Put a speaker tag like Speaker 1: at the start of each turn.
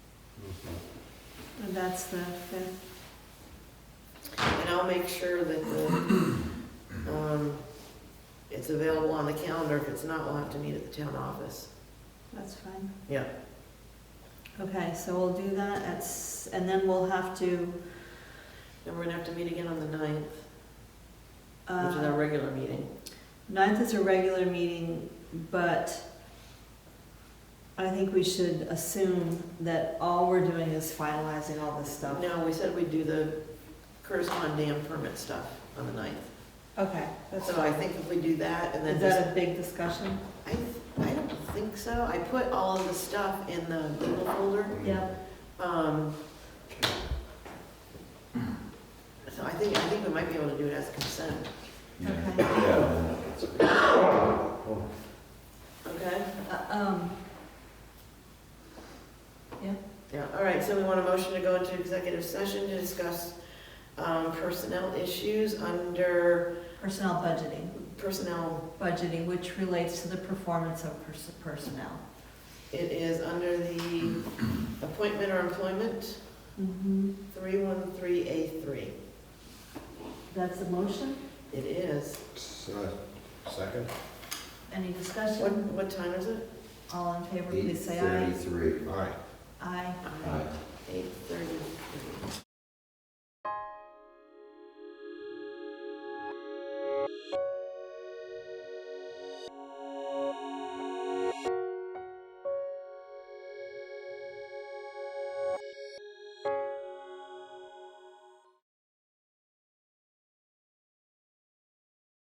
Speaker 1: Mm-hmm.
Speaker 2: That's the fifth.
Speaker 3: And I'll make sure that the, um, it's available on the calendar. If it's not, we'll have to meet at the town office.
Speaker 2: That's fine.
Speaker 3: Yeah.
Speaker 2: Okay, so we'll do that at, s- and then we'll have to,
Speaker 3: And we're gonna have to meet again on the ninth, which is our
Speaker 2: uh,
Speaker 3: regular meeting.
Speaker 2: ninth is a regular meeting, but I think we should assume that all we're doing is finalizing all this stuff.
Speaker 3: No, we said we'd do the Curtis Pond Dam permit stuff on the ninth.
Speaker 2: Okay, that's
Speaker 3: So I
Speaker 2: fine.
Speaker 3: think if we do that and then
Speaker 2: Is
Speaker 3: just,
Speaker 2: that a big discussion?
Speaker 3: I, I don't think so. I put all of the stuff in the Google folder.
Speaker 2: Yep.
Speaker 3: Um, so I think, I think we might be able to do it as consent,
Speaker 2: Okay.
Speaker 1: Yeah.
Speaker 3: okay?
Speaker 2: Uh, Um,
Speaker 3: Yeah, all right, so we want a motion to go into executive session to discuss um, personnel issues under
Speaker 2: personnel budgeting,
Speaker 3: personnel.
Speaker 2: budgeting, which relates to the performance of pers- personnel.
Speaker 3: It is under the appointment or employment,
Speaker 2: Mm-hmm.
Speaker 3: 313A3.
Speaker 2: That's the motion?
Speaker 3: It is.
Speaker 1: Second?
Speaker 2: Any
Speaker 3: What,
Speaker 2: discussion?
Speaker 3: what time is it?
Speaker 2: All in favor,
Speaker 1: Eight
Speaker 2: please say aye.
Speaker 1: thirty-three. Aye.
Speaker 2: Aye.
Speaker 1: Aye.
Speaker 3: 8:33.